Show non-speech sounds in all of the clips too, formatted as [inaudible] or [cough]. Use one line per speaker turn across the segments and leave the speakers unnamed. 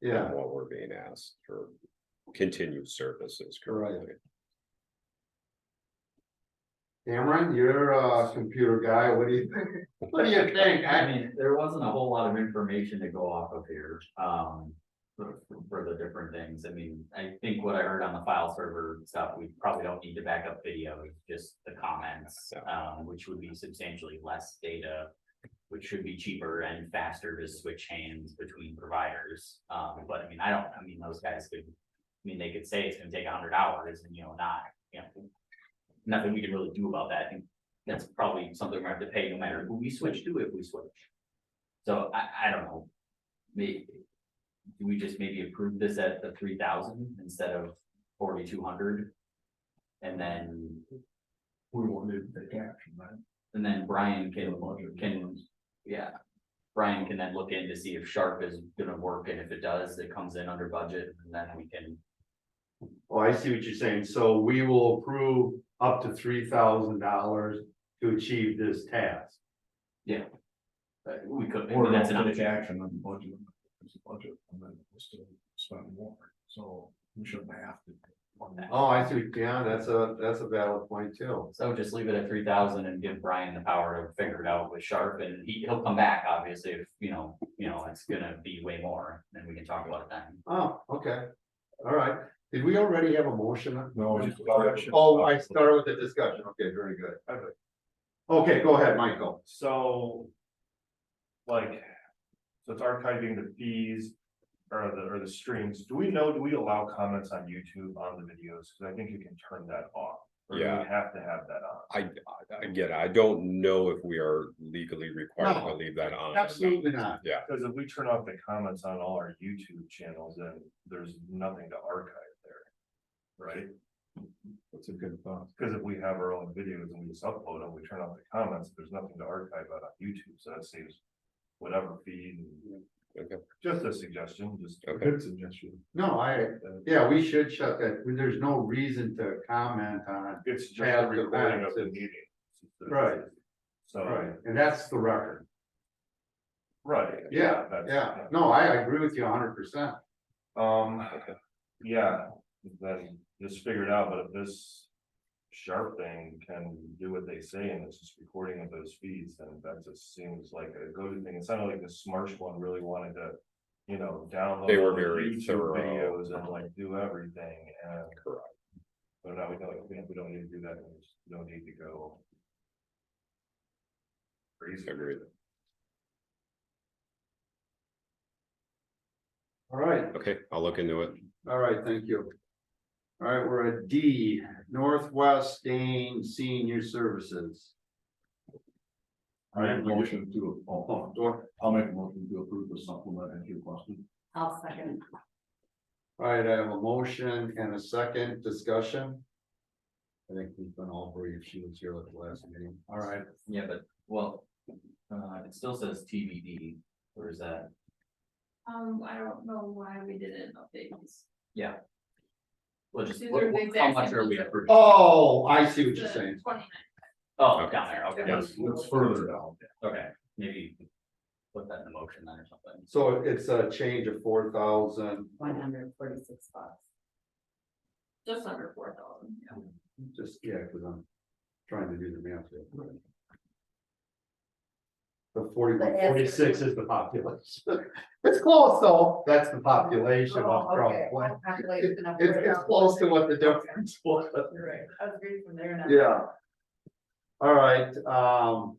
yeah,
than what we're being asked for continued services
Right.
currently.
Cameron, you're a computer guy, what do you think, what do you think?
I
I,
mean, there wasn't a whole lot of information to go off of here, um, for, for the different things. I mean, I think what I heard on the file server stuff, we probably don't need to back up video, just the comments, um, which would be substantially less data, which should be cheaper and faster to switch hands between providers. Um, but I mean, I don't, I mean, those guys could, I mean, they could say it's gonna take a hundred hours and, you know, not, you know, nothing we can really do about that. I think that's probably something we're gonna have to pay no matter who we switch to if we switch. So I, I don't know. Maybe, do we just maybe approve this at the three thousand instead of forty-two hundred? And then,
We won't need to take action, right?
and then Brian can, can, yeah. Brian can then look in to see if Sharp is gonna work, and if it does, it comes in under budget, and then we can,
oh, I see what you're saying, so we will approve up to three thousand dollars to achieve this task.
uh, we could,
Or
that's an
we'll take
option.
action on the budget, it's a budget, and then we'll still spend more, so we shouldn't have to.
on that.
Oh, I see, what- yeah, that's a, that's a valid point too,
So just leave it at three thousand and give Brian the power to figure it out with Sharp and he, he'll come back, obviously, if, you know, you know, it's gonna be way more, then we can talk about it then.
oh, okay, all right, did we already have a motion?
No, just action.
Oh, I started with the discussion, okay, very good. Okay, go ahead, Michael,
So. Like, so it's archiving the fees or the, or the streams. Do we know, do we allow comments on YouTube on the videos? Cause I think you can turn that off. or do we
Yeah.
Have to have that on.
I, I- again, I don't know if we are legally required to
No,
leave that on. or not.
absolutely not,
Cause if we turn off the comments on all our YouTube channels, then there's nothing to archive there. Right?
That's a good thought.
Cause if we have our own videos and we just upload them, we turn off the comments, there's nothing to archive out on YouTube. So that saves whatever feed. and-
Okay.
Just a suggestion, just.
Okay.
Good suggestion.
no, I,
uh,
yeah, we should shut that, there's no reason to comment on,
It's just
Past
a recording
events
of the
is-
meeting.
Right.
So.
right, and that's the record,
Right.
Yeah,
that's-
yeah, no, I agree with you hundred percent.
Um,
Ah,
yeah, then just figure it out, but if this. Sharp thing can do what they say and it's just recording of those feeds, then that just seems like a go-to thing. It sounded like this Marsh one really wanted to. You know, download.
They were
all the
very
YouTube
thorough.
Videos and like do everything and.
Correct.
But now we don't, we don't need to do that, we just don't need to go. Crazy.
Agreed.
All right,
Okay, I'll look into it.
all right, thank you. All right, we're at D, Northwest Dane Senior Services.
I have a motion to,
Oh,
oh,
do I-
I'll make a motion to approve the supplement as you requested.
I'll second.
All right, I have a motion and a second discussion. I think we've been all brief, she was here at the last meeting, all right.
Yeah, but, well, uh, it still says TBD, or is that?
Um, I don't know why we didn't update these.
Well, just,
These
what-
are the
what- how
exact
much
same
are we
ones.
approving?
Oh, I see what you're
The
saying.
29.
Oh, down there, okay,
Yeah.
Yes, let's further down.
okay, maybe put that in the motion then or something.
So it's a change of four thousand,
one hundred and forty-six bucks.
Just under four thousand, yeah.
just, yeah, cause I'm trying to do the math here. The forty-one,
But as-
forty-six is the population. [laughs] It's close though, that's the population of
Oh,
Crown
okay.
Point.
I'll calculate it and I'll
It's,
figure it
it's
out.
close to what the difference [laughs] was.
You're right. I was reading from there and I-
Yeah. All right, um.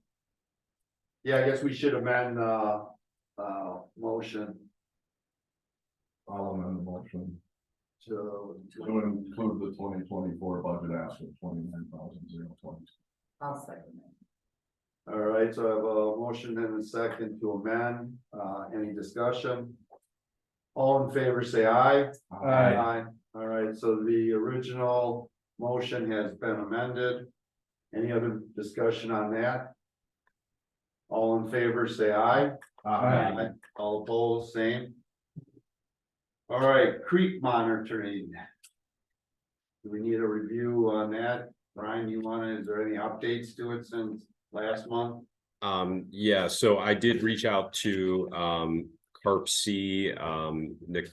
Yeah, I guess we should amend, uh, uh, motion
I'll amend the motion
to,
to include the twenty twenty-four budget ask of twenty-nine thousand zero twenty.
I'll second it.
all right, so I have a motion and a second to amend, uh, any discussion? All in favor, say aye. Aye. All right, so the original motion has been amended. Any other discussion on that? All in favor, say aye.
Uh,
Aye.
Aye. All opposed, same. All right, creek monitoring. Do we need a review on that? Brian, you wanna, is there any updates to it since last month?
Um, yeah, so I did reach out to, um, Carp C, um, Nick